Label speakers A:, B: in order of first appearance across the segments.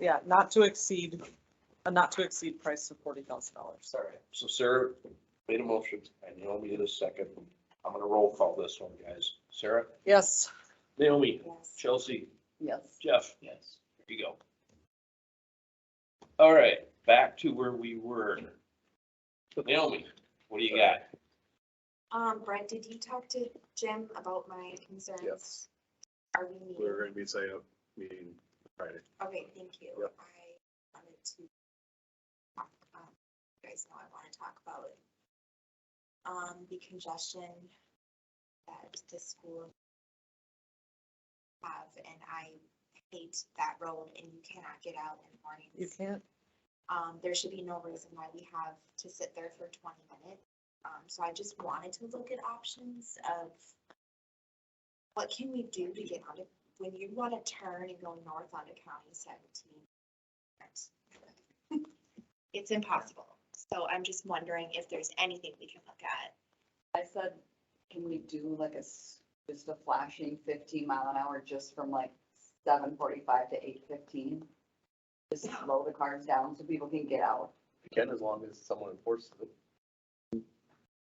A: yeah, not to exceed, a not to exceed price of forty thousand dollars.
B: All right, so Sarah made a motion, and Naomi did a second. I'm gonna roll call this one, guys. Sarah,
A: Yes,
B: Naomi,
C: Yes.
B: Chelsea,
A: yes.
B: Jeff. Yes. There you go. All right, back to where we were. Naomi, what do you got?
C: Um, Brent, did you talk to Jim about my concerns?
D: Yes.
C: Are we meeting?
D: We're gonna be setting up meeting Friday.
C: Okay, thank you.
D: Yep.
C: I wanted to. talk, um, You guys know I want to talk about. Um, the congestion that the school. Have, and I hate that road and you cannot get out in the morning.
A: You can't,
C: Um, there should be no reason why we have to sit there for twenty minutes. Um, so I just wanted to look at options of what can we do to get out of, when you wanna turn and go north onto County seventeen. It's impossible. So I'm just wondering if there's anything we can look at.
E: I said, can we do like a, s- just a flashing fifteen mile an hour just from like seven forty-five to eight fifteen? Just slow the cars down so people can get out.
D: Again, as long as someone enforces it.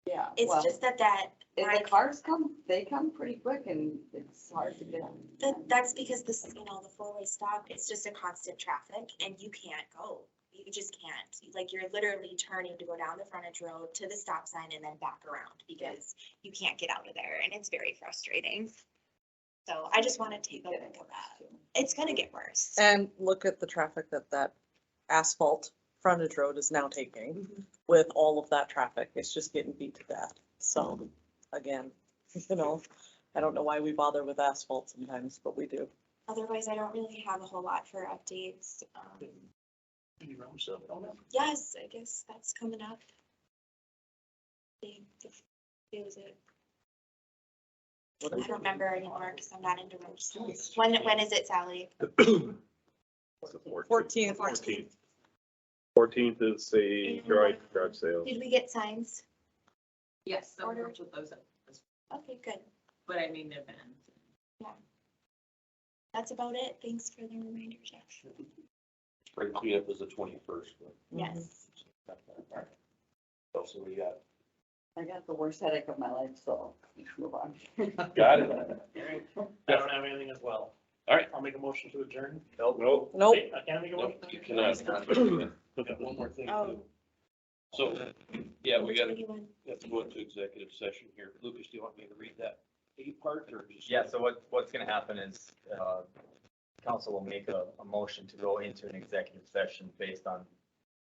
E: Yeah.
C: It's
E: well,
C: just that that,
E: If
C: like-
E: the cars come, they come pretty quick and it's hard to get on.
C: that, that's because this, you know, the four-way stop, it's just a constant traffic and you can't go. You just can't. Like, you're literally turning to go down the frontage road to the stop sign and then back around because you can't get out of there and it's very frustrating. So I just want to take a look at that. It's gonna get worse.
A: and look at the traffic that that asphalt frontage road is now taking with all of that traffic. It's just getting beat to death. So, again, you know, I don't know why we bother with asphalt sometimes, but we do.
C: Otherwise, I don't really have a whole lot for updates. Um, Yes, I guess that's coming up. I think It was it.
A: What
C: I
A: is it?
C: don't remember anymore because I'm not into roads. When, when is it, Sally?
A: Fourteenth,
D: Fourteenth. Fourteenth is the garage, garage
A: Oh.
D: sale.
C: Did we get signs?
F: Yes, so
C: Order.
F: we're with those,
C: Okay, good.
F: but I mean, event.
C: That's about it. Thanks for the reminder, Jeff.
B: Spring cleanup is the twenty-first.
A: Mm-hmm.
C: Yes.
B: So we got,
E: I got the worst headache of my life, so let's move on.
B: got it.
G: Alright, I don't have anything as well.
B: All right.
G: I'll make a motion to adjourn.
D: Nope.
A: nope.
G: Wait, I can't make a motion.
B: Nope, You cannot. We got One more thing. to do. So, yeah, we
C: Which
B: gotta,
C: one do you want?
B: have to go into executive session here. Lucas, do you want me to read that eight part or just?
H: Yeah, so what, what's gonna happen is, uh, council will make a, a motion to go into an executive session based on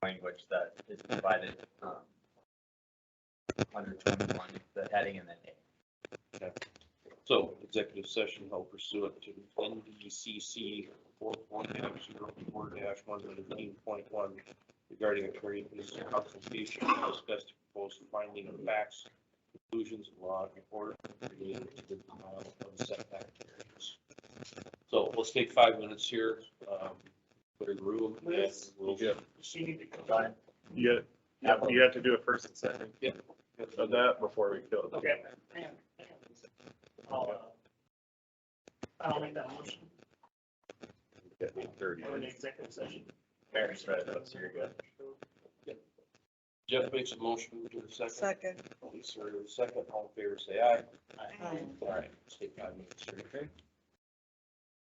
H: language that is provided, um, under twenty-one, the heading and the name.
B: So executive session held pursuant to NDCC four one dash zero four dash one nineteen point one regarding attorney fees and consultation to discuss the proposed finding of facts, conclusions of law and order related to the denial of setback. areas. So let's take five minutes here, um, clear the room. and
G: Yes.
B: we'll-
D: Yeah.
G: She need to come back.
D: You got, you have to do it first and second. So that before we kill it.
G: Okay. I'll, uh, I'll make that motion.
D: Eight thirty.
G: We're in executive session.
H: Parents, right, so you're good.
B: Jeff makes a motion to the second.
A: Second.
B: Lisa, second, all in favor, say aye.
G: Aye.
B: All right, let's take five minutes here, okay?